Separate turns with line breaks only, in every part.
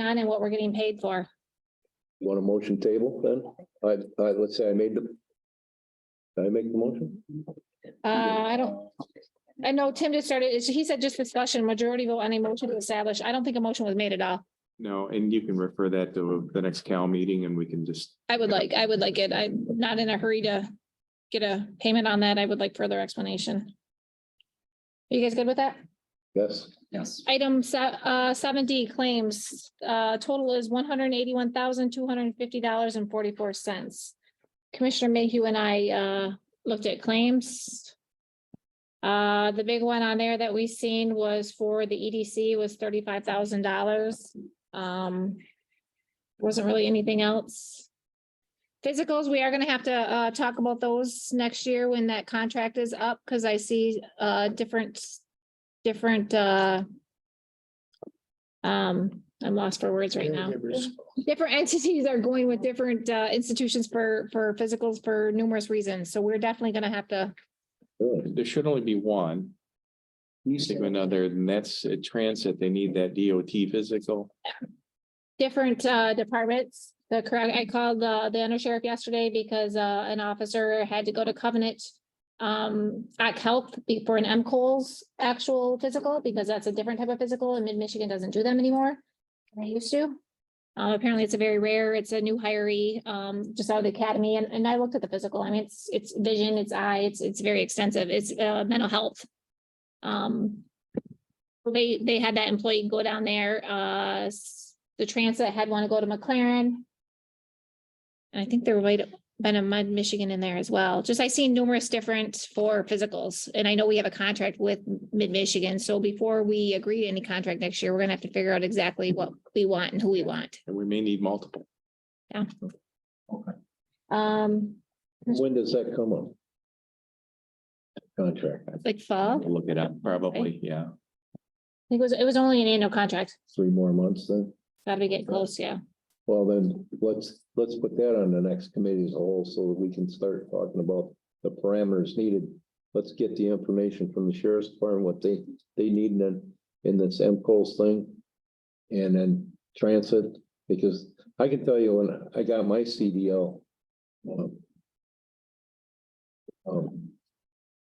on and what we're getting paid for.
Want a motion table then? I, I, let's say I made the. Did I make the motion?
Uh, I don't, I know Tim just started, it's- he said just discussion, majority vote on a motion to establish. I don't think a motion was made at all.
No, and you can refer that to the next Cal meeting and we can just,
I would like, I would like it. I'm not in a hurry to get a payment on that. I would like further explanation. You guys good with that?
Yes,
Yes.
Item se- uh, seven D claims, uh, total is one hundred and eighty-one thousand, two hundred and fifty dollars and forty-four cents. Commissioner Mayhew and I, uh, looked at claims. Uh, the big one on there that we seen was for the EDC was thirty-five thousand dollars. Um, wasn't really anything else. Physicals, we are gonna have to, uh, talk about those next year when that contract is up, because I see, uh, different, different, uh, um, I'm lost for words right now. Different entities are going with different, uh, institutions for, for physicals for numerous reasons, so we're definitely gonna have to,
really.
there should only be one. Sigma other, and that's at transit. They need that DOT physical.
different uh departments. The correct, I called uh the undersheriff yesterday because uh an officer had to go to Covenant. Um, act help before an M actual physical, because that's a different type of physical and mid-Michigan doesn't do them anymore. than They used to. Uh, apparently it's a very rare, it's a new hiree, um, just out of the academy and and I looked at the physical. I mean, it's it's vision, it's eye, it's it's very extensive. It's uh mental health. Um, they, they had that employee go down there, uh, s- the transit had want to go to McLaren. And I think there might have been a Mud Michigan in there as well. Just I seen numerous different for physicals. And I know we have a contract with Mid Michigan. So before we agree to any contract next year, we're gonna have to figure out exactly what we want and who we want.
And we may need multiple.
Yeah.
Okay.
Um,
When does that come up? Contract,
like fall, I think
Look it up, probably, yeah.
it was, it was only an annual contract.
three more months then?
Gotta be getting close, yeah.
Well, then, let's, let's put that on the next committee as a whole, so that we can start talking about the parameters needed. Let's get the information from the sheriff's department, what they, they need in, the- in this M Coles thing. And then transit, because I can tell you when I got my CDL. um, um,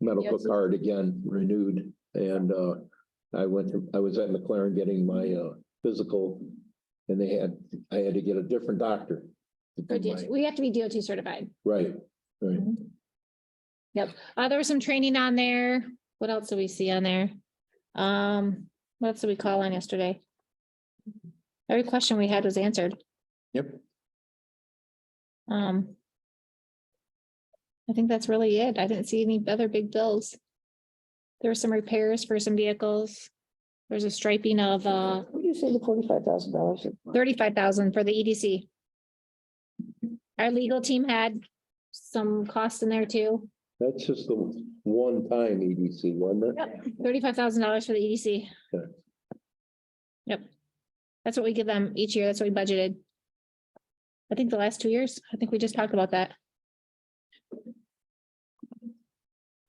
Medical
Yes.
card again renewed, and, uh, I went, to- I was at McLaren getting my, uh, physical. And they had, I had to get a different doctor. to do
Or DOT.
my-
We have to be DOT certified.
Right, right.
Uh, there was some training on there. What else do we see on there? Um, what else did we call on yesterday? Every question we had was answered.
Yep.
Um. I think that's really it. I didn't see any other big bills. There were some repairs for some vehicles. There's a striping of, uh,
What do you say the forty-five thousand dollars?
thirty-five thousand for the EDC. Our legal team had some costs in there too.
That's just the one time EDC, wasn't it?
Thirty-five thousand dollars for the EDC.
Okay.
Yep. That's what we give them each year. That's what we budgeted. I think the last two years, I think we just talked about that.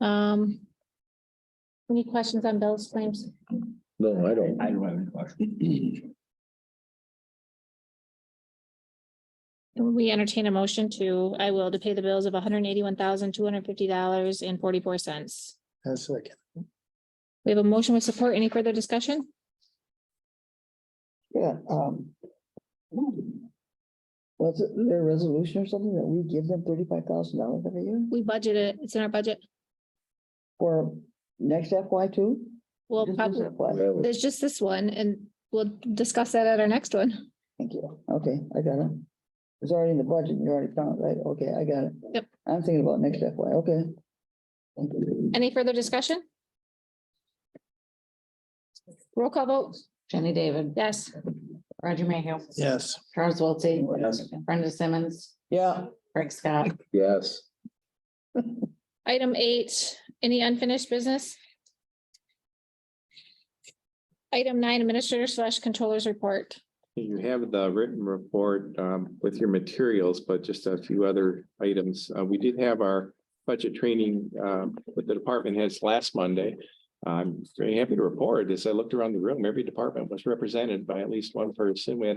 Um. Any questions on bills claims?
No, I don't.
I don't have any question.
We entertain a motion to, I will, to pay the bills of one hundred eighty-one thousand, two hundred fifty dollars and forty-four cents. We have a motion with support. Any further discussion?
Yeah, um. Was it their resolution or something that we give them thirty-five thousand dollars every year
We budget it. It's in our budget.
for next FY two?
We'll
Just
probably,
this FY.
That was-
there's just this one and we'll discuss that at our next one.
Thank you. Okay, I got it. It's already in the budget. You already found it, right? Okay, I got it.
Yep.
I'm thinking about next FY, okay. Thank you.
Any further discussion? Roll call vote.
Jenny David,
Yes.
Roger Mayhew,
Yes.
Charles Wiltie,
Yes.
Brenda Simmons,
Yeah,
Craig Scott.
Yes,
Item eight, any unfinished business? Item nine, administrator slash controllers report.
You have the written report um, with your materials, but just a few other items. Uh, We did have our budget training um, with the department heads last Monday. I'm very happy to report, as I looked around the room, every department was represented by at least one person. We had a